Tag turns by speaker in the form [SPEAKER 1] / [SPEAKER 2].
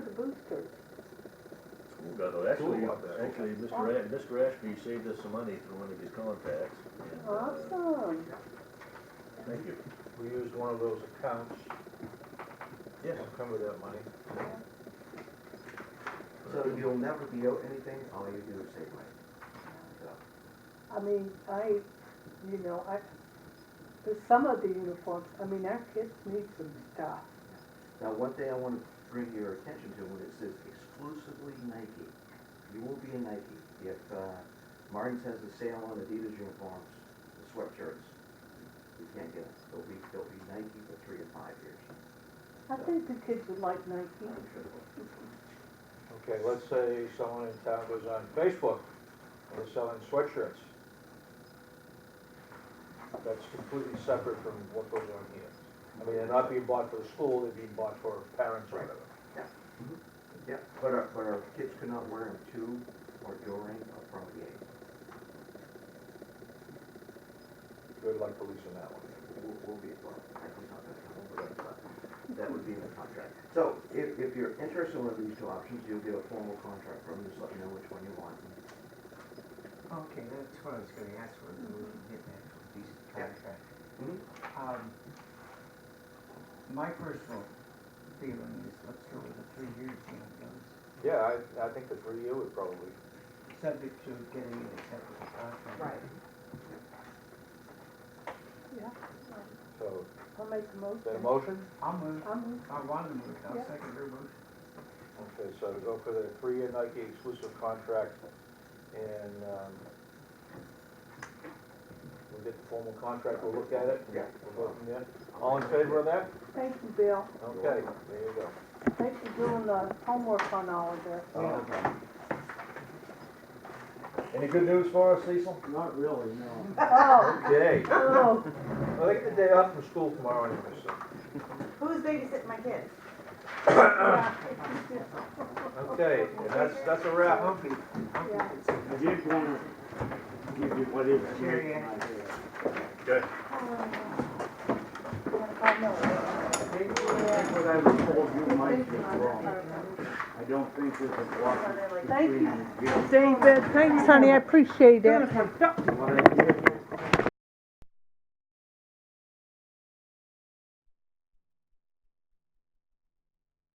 [SPEAKER 1] got, a- actually,
[SPEAKER 2] Cool, I bet.
[SPEAKER 1] actually, Mr. Ash, Mr. Ashby saved us some money through one of his contacts. and, uh,
[SPEAKER 3] Awesome.
[SPEAKER 1] Thank you.
[SPEAKER 2] We used one of those accounts,
[SPEAKER 1] Yes.
[SPEAKER 2] encumber that money.
[SPEAKER 4] So you'll never be owed anything, all you do is save money. So,
[SPEAKER 3] I mean, I, you know, I, but some of the uniforms, I mean, our kids need some stuff.
[SPEAKER 4] Now, one thing I want to bring your attention to, when it says exclusively Nike, you will be a Nike. If uh, Martin's has a sale on Adidas uniforms, the sweatshirts, you can't get them. They'll be, they'll be Nike for three to five years.
[SPEAKER 3] I think the kids would like Nike.
[SPEAKER 4] I'm sure.
[SPEAKER 2] Okay, let's say someone in town goes on Facebook, and they're selling sweatshirts. That's completely separate from what goes on here. I mean, they're not being bought for the school, they're being bought for parents or whatever.
[SPEAKER 4] Yeah, but our, but our kids could not wear them to or during or from a game.
[SPEAKER 2] Good luck policing that one.
[SPEAKER 4] We'll, we'll be, well, Nike's not gonna come over there, but that would be in the contract. So if, if you're interested in one of these two options, you'll get a formal contract from them, just let me know which one you want.
[SPEAKER 5] Okay, that's what I was gonna ask for, we can get an actual decent
[SPEAKER 4] Yeah.
[SPEAKER 5] contract.
[SPEAKER 4] Mhm.
[SPEAKER 5] Um, my personal feeling is, let's go with the three years, you know, those,
[SPEAKER 2] Yeah, I, I think the three year would probably,
[SPEAKER 5] subject to getting an acceptable contract.
[SPEAKER 3] Yeah,
[SPEAKER 2] so,
[SPEAKER 3] I'll make a
[SPEAKER 2] is that a
[SPEAKER 3] motion. Um,
[SPEAKER 2] motion?
[SPEAKER 5] I'll move,
[SPEAKER 3] I'm,
[SPEAKER 5] I want to move, I'll
[SPEAKER 3] Yeah.
[SPEAKER 5] second your motion.
[SPEAKER 2] Okay, so to go for the three-year Nike exclusive contract, and, um, we'll get the formal contract, we'll look at it.
[SPEAKER 4] Yeah.
[SPEAKER 2] We'll go from there. All in favor of that?
[SPEAKER 3] thank you, Bill.
[SPEAKER 2] Okay, there you go.
[SPEAKER 3] Thanks for doing the uh, homework on all of this.
[SPEAKER 4] Oh, okay.
[SPEAKER 1] Any good news for us, Cecil?
[SPEAKER 6] Not really, no.
[SPEAKER 3] Oh,
[SPEAKER 2] Okay,
[SPEAKER 3] oh,
[SPEAKER 2] well, I get the day off from school tomorrow anyway, so,
[SPEAKER 7] Who's babysitting my kids?
[SPEAKER 2] okay, and that's, that's a wrap.
[SPEAKER 5] I'll be, I'll be,
[SPEAKER 6] I
[SPEAKER 3] yeah.
[SPEAKER 6] did wanna give you Mm-hmm. what is.
[SPEAKER 5] Jerry,
[SPEAKER 6] in my
[SPEAKER 5] I-
[SPEAKER 6] head.
[SPEAKER 3] I know.
[SPEAKER 6] Think What I was told you might be wrong. I don't think there's a block
[SPEAKER 3] Thank you.
[SPEAKER 6] between Jerry
[SPEAKER 3] David, thanks, honey, I appreciate it.
[SPEAKER 6] and what I did.